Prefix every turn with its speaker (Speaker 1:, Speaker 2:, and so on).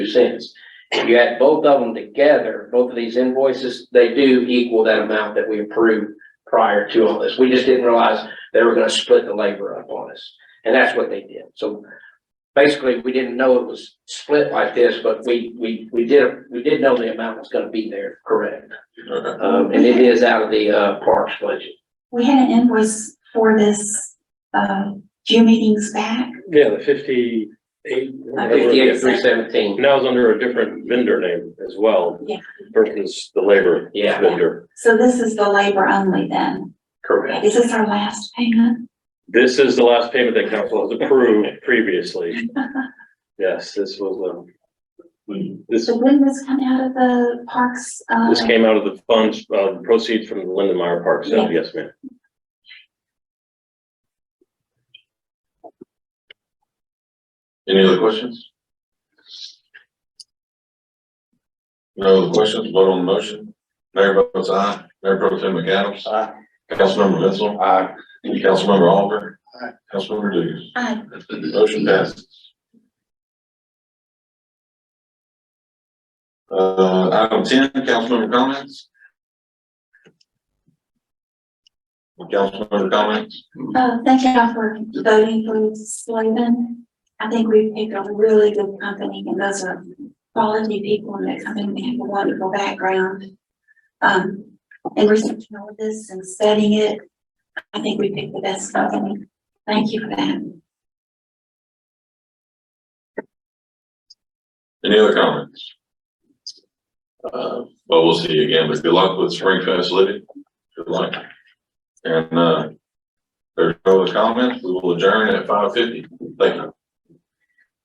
Speaker 1: cents. If you add both of them together, both of these invoices, they do equal that amount that we approved prior to all this. We just didn't realize they were gonna split the labor up on us, and that's what they did. So basically, we didn't know it was split like this, but we, we, we did, we did know the amount was gonna be there, correct? Um, and it is out of the, uh, parks budget.
Speaker 2: We had an invoice for this, uh, few meetings back.
Speaker 3: Yeah, the fifty-eight.
Speaker 1: Uh, Fifty-eight, three seventeen,
Speaker 3: Now it's under a different vendor name as well.
Speaker 2: Yeah.
Speaker 3: Versus the labor
Speaker 1: Yeah.
Speaker 3: vendor.
Speaker 2: So this is the labor only then.
Speaker 1: correct.
Speaker 2: Is this our last payment?
Speaker 3: This is the last payment that council has approved previously. Yes, this was, um, this,
Speaker 2: So when this come out of the parks, uh,
Speaker 3: this came out of the funds, uh, proceeds from the Lindenmeyer Park sale. Yes, ma'am.
Speaker 4: Any other questions? No other questions, vote on the motion. Mayor votes aye, Mayor Pro Tim McAdams. Aye. Councilmember Menzel. Aye. Councilmember Oliver. Aye. Councilmember Dugas.
Speaker 2: I,
Speaker 4: Motion passes. Uh, item ten, councilmember comments? Councilmember comments?
Speaker 2: uh, thank y'all for voting for Slavin. I think we picked a really good company and those are quality people and that company have a wonderful background. Um, and researching all of this and studying it, I think we picked the best company. Thank you for that.
Speaker 4: Any other comments? Uh, well, we'll see you again, but good luck with Spring Fest Living. Good luck. And, uh, there's no other comments. We will adjourn at five fifty. Thank you.